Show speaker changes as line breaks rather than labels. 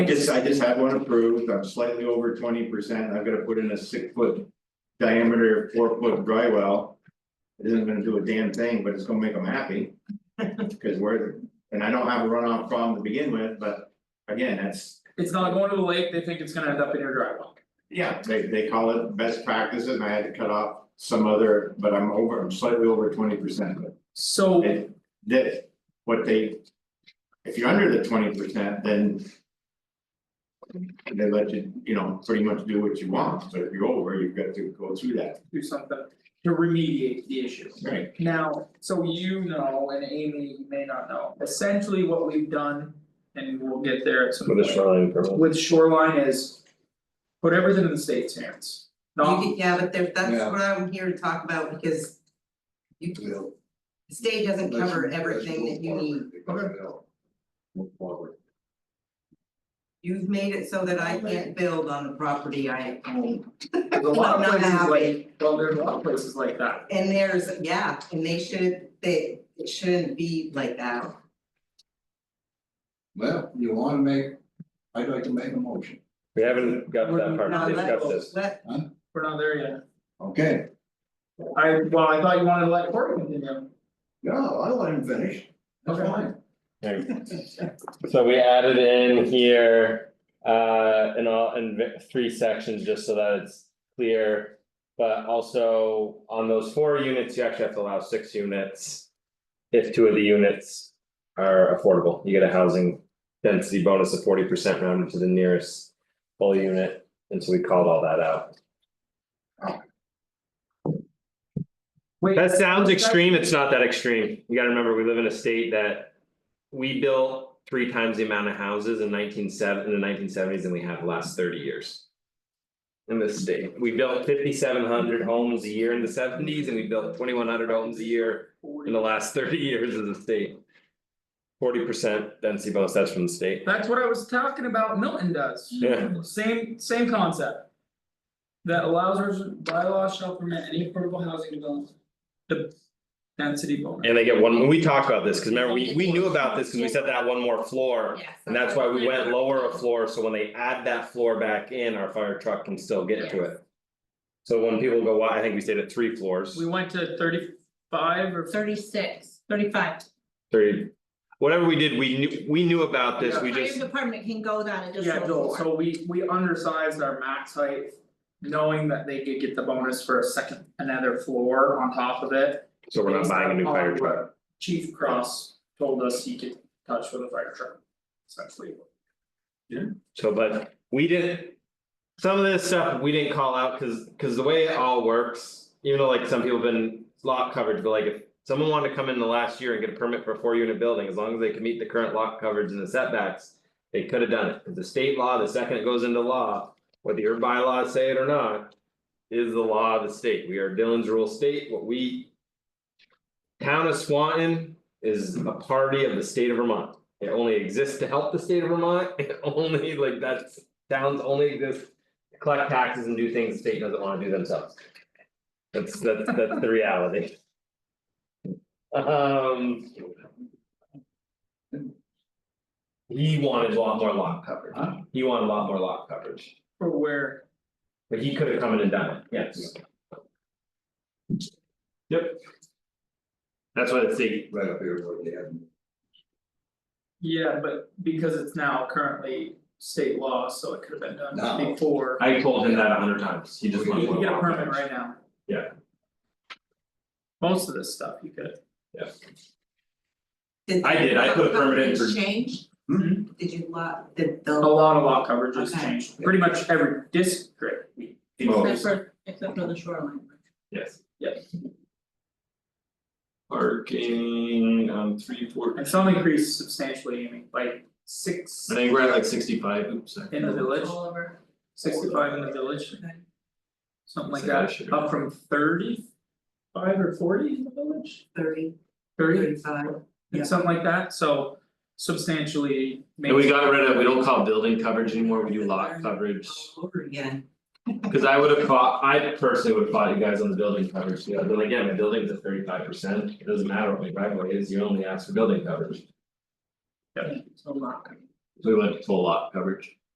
I just, I just had one approved, I'm slightly over twenty percent, I've gotta put in a six foot diameter, four foot dry well. It isn't gonna do a damn thing, but it's gonna make them happy. Cause we're, and I don't have a runoff problem to begin with, but again, that's,
It's not going to the lake, they think it's gonna end up in your driveway.
yeah, they, they call it best practices, and I had to cut off some other, but I'm over, I'm slightly over twenty percent, but.
So,
It, this, what they. If you're under the twenty percent, then. They let you, you know, pretty much do what you want, but if you're over, you've got to go through that,
do something to remediate the issue.
right?
Now, so you know, and Amy you may not know, essentially what we've done, and we'll get there at some
With
point.
a shoreline permit,
With shoreline is. Put everything in the state's hands,
You
not,
get- Yeah, but there, that's
Yeah.
what I'm here to talk about because. You, the
We'll-
state doesn't
let's-
cover
let's
everything
move
that you
forward.
need,
Because we'll Move forward.
you've made it so that I can't build on the property I own.
there's a lot of
Not
places like,
happy.
well, there's a lot of places like that.
And there's, yeah, and they should, they, it shouldn't be like that,
Well, you wanna make, I'd like to make a motion,
we haven't got to that
no,
part, we've got
let,
this,
let,
We're not there yet,
okay?
I, well, I thought you wanted to let Cory continue,
Yeah, I'll let him finish, that's
Okay.
fine.
so we added in here. Uh, in all, in v- three sections, just so that it's clear. But also on those four units, you actually have to allow six units. If two of the units are affordable, you get a housing density bonus of forty percent rounded to the nearest full unit, and so we called all that out.
wait.
That sounds extreme, it's not that extreme, you gotta remember, we live in a state that. We built three times the amount of houses in nineteen seven, in the nineteen seventies than we have the last thirty years. In this state, we built fifty seven hundred homes a year in the seventies and we built twenty one hundred homes a year in the last thirty years as a state. Forty percent density bonus, that's from the state,
That's what I was talking about, Milton does.
yeah,
Same, same concept. That allows us, bylaws shall permit any affordable housing development. The density bonus.
and they get one, we talked about this, cause remember, we we knew about this, cause we said that one more floor.
yes.
And that's why we went lower a floor, so when they add that floor back in, our fire truck can still get to it. So when people go, why, I think we stayed at three floors,
We went to thirty five or
Thirty-six, thirty-five.
thirty. Whatever we did, we knew, we knew about this, we
Fire
just,
Department can go down and just.
Yeah,
look
Joel,
for it.
so we we undersized our max height. Knowing that they could get the bonus for a second, another floor on top of it.
so we're not
based
buying a new
on
fire
what
truck.
Chief Cross told us he could touch with a fire truck. Essentially.
So, but we didn't. Some of this stuff we didn't call out, cause, cause the way it all works, even though like some people have been lot coverage, but like if. Someone wanted to come in the last year and get a permit for a four unit building, as long as they can meet the current lot coverage and the setbacks. They could have done it, 'Cause the state law, the second it goes into law, whether your bylaws say it or not. Is the law of the state, we are Dylan's rural state, what we. Town of Swanton is a party of the state of Vermont. It only exists to help the state of Vermont, it only like that's, towns only exist. to Collect taxes and do things the state doesn't wanna do themselves. That's that's that's the reality. Um. He wanted a lot more lot coverage, he wanted a lot more lot coverage,
For where,
but he could have come in and done it, yes. Yep. That's why the state
Right up here where they had.
yeah, but because it's now currently state law, so it could have been done
No.
before.
I told him that a hundred times, he just
You
wanted.
can get a
one.
permit right now.
Yeah.
Most of this stuff you could,
I did, I put a permit in for- Mm-hmm. Oh.
Change,
a
did you lot, did the.
lot of lot coverage has
Okay.
changed, pretty much every district, we,
Oh,
Except for, except for the shoreline.
yes.
Yep.
Parking on three four.
and some increased substantially, I mean, like six
I think we're at like sixty five, oops, sorry.
in the village,
All over.
sixty-five in the village.
Okay.
Something like
So that
that,
should be-
up from thirty five or forty in the village,
Thirty,
thirty,
thirty-five, yeah.
and something like that, so substantially.
And we
makes-
got rid of, we don't call building coverage anymore, we do lot coverage,
all over again,
cause I would have fought, I personally would have fought you guys on the building coverage, yeah, but again, my building's at thirty five percent. It doesn't matter what my driveway is, you only ask for building coverage.
So lot coverage.
we went to full lot coverage.